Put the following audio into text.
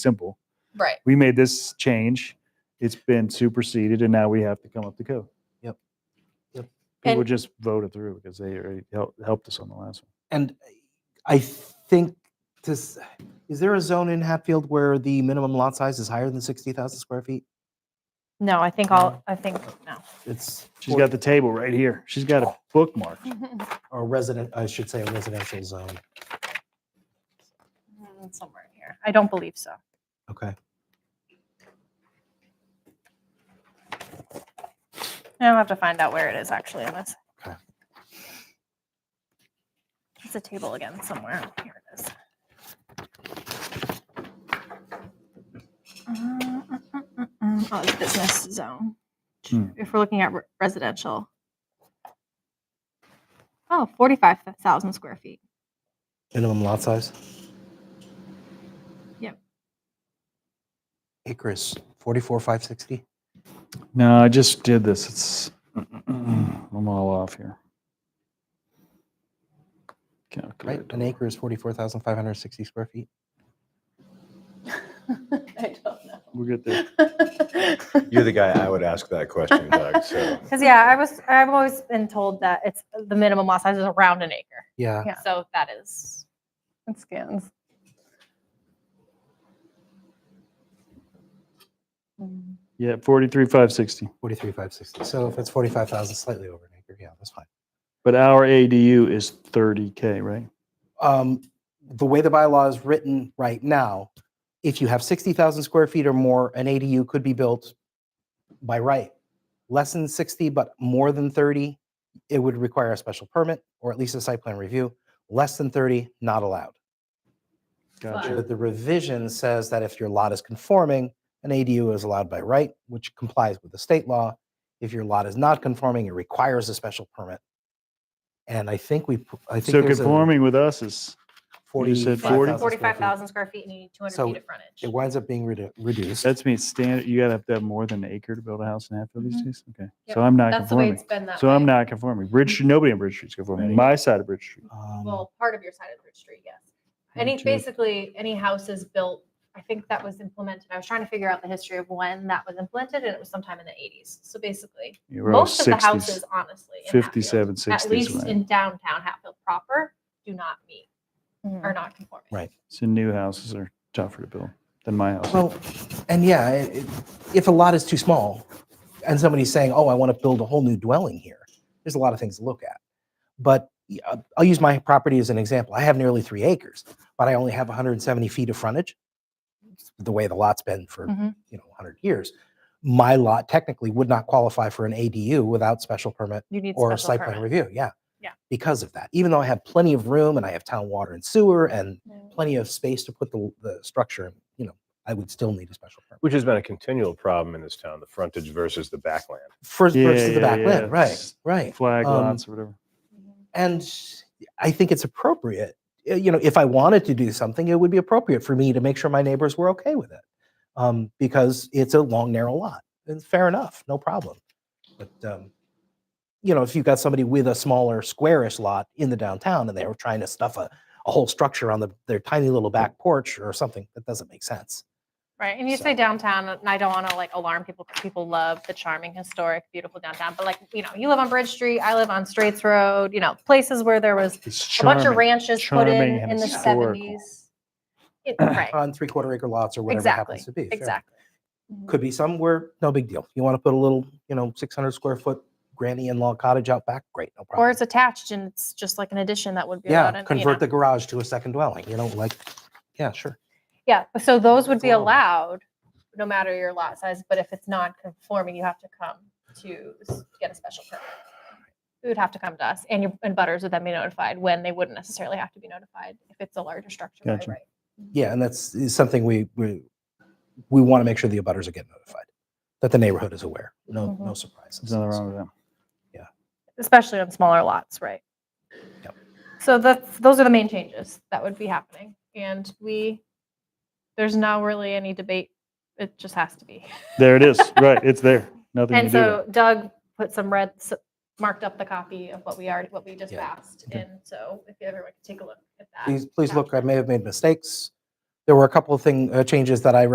simple. Right. We made this change. It's been superseded and now we have to come up to code. Yep. Yep. People And- just voted through because they already helped, helped us on the last one. And I think this, is there a zone in Hatfield where the minimum lot size is higher than 60,000 square feet? No, I think I'll, I think, no. It's. She's got the table right here. She's got a bookmark. Or resident, I should say a residential zone. Mm, Somewhere in here. I don't believe so. Okay. I'll have to find out where it is actually in this. Okay. It's a table again somewhere. Here it is. Uh, mm, mm, mm, mm. Oh, it's business zone. Hmm. If we're looking at re- residential. Oh, 45,000 square feet. Minimum lot size? Yep. Acres, 44,560? No, I just did this. It's, I'm all off here. Right, Calculator. an acre is 44,560 square feet. I don't know. We'll get there. You're the guy I would ask that question, Doug. So Because yeah, I was I've always been told that it's the minimum lot size is around an acre. Yeah. Yeah. So that is it scans. Yeah, 43,560. 43,560. So if it's 45,000, slightly over an acre, yeah, that's fine. But our ADU is 30K, right? um, the way the bylaw is written right now, if you have 60,000 square feet or more, an ADU could be built by right. Less than 60, but more than 30, it would require a special permit or at least a site plan review. Less than 30, not allowed. Gotcha. But the revision says that if your lot is conforming, an ADU is allowed by right, which complies with the state law. If your lot is not conforming, it requires a special permit. And I think we, p- I think So there's a conforming with us is, you said 40? 45,000 square feet. Forty-five thousand square feet and you need two hundred So feet of frontage. It winds up being redu- reduced. that's me standard, you gotta have to have more than an acre to build a house in Hatfield these days? Okay, Mm-hmm. Yep, so I'm not That's the way it's conforming. been that So I'm way. Mm-hmm. not conforming. Bridge, Street- nobody on Bridge Street's conforming, my side of Bridge Street. Um, Well, part of your side of Bridge Street, yes. Yeah, Any true. basically any house is built, I think that was implemented. I was trying to figure out the history of when that was implemented and it was sometime in the eighties. So basically, You were all Most of the 60s, houses, honestly, in Hatfield, 57, 60s. at least right? in downtown Hatfield proper, do not meet, are Mhm. not conforming. Right. So new houses are tougher to build than my house. Well, and yeah, it, it- if a lot is too small, and somebody's saying, "Oh, I want to build a whole new dwelling here," there's a lot of things to look at. But y- uh, I'll use my property as an example. I have nearly three acres, but I only have 170 feet of frontage. It's The way the lot's been for Mhm. you know 100 years, my lot technically would not qualify for an ADU without special permit You need or special site permit. plan review. Yeah. Yeah. Because of that, even though I have plenty of room and I have town water and sewer and Mm. plenty of space to put the, the structure, in, you know, I would still need a special permit. which has been a continual problem in this town, the frontage versus the backland. First Yeah, versus the yeah, back yeah, land, right, it's- right. Flag um, lots or whatever. And I think it's appropriate. Uh, You know, if I wanted to do something, it would be appropriate for me to make sure my neighbors were okay with it. Um, because it's a long, narrow lot. And fair enough, no problem. But um, you know, if you've got somebody with a smaller squarish lot in the downtown and they were trying to stuff a, a whole structure on the, their tiny little back porch or something, that doesn't make sense. Right, and you say So- downtown, and I don't want to like alarm people. 'cause People love the charming, historic, beautiful downtown. But like, you know, you live on Bridge Street, I live on Straits Road. You know, places where there was It's a bunch of charming. ranches put in charming and in the historical. seventies. Right, On three quarter acre lots or whatever it exactly, happens to be. fair enough. exactly. Could be somewhere, no big deal. You want to put a little, you know, 600 square foot granny in-law cottage out back, great, no problem. Or it's attached and it's just like an addition that would be. allowed Yeah, in, you convert know. the garage to a second dwelling, you know, like, yeah, sure. Yeah, but so those would It's be allowable. allowed, no matter your lot size, but if it's non-conforming, you have to come to s- get a special permit. It would have to come to us, and your, and butters would then be notified when they wouldn't necessarily have to be notified if it's a larger structure, by Gotcha. right? Yeah, and that's is something we, we, we want to make sure the abutters are getting notified, that the neighborhood is aware, no, Mm-hmm. no surprises. There's nothing wrong with that. especially on smaller lots, right? Yep. So that's, those are the main changes that would be happening. And we, there's not really any debate. It just has to be. There it is, right, it's there, nothing to And do with it. so Doug put some red, s- marked up the copy of what we already, what we just Yeah. passed. And so if everyone could take a look at that. Please, please look, I may have made mistakes. There were a couple of thing, uh, changes that I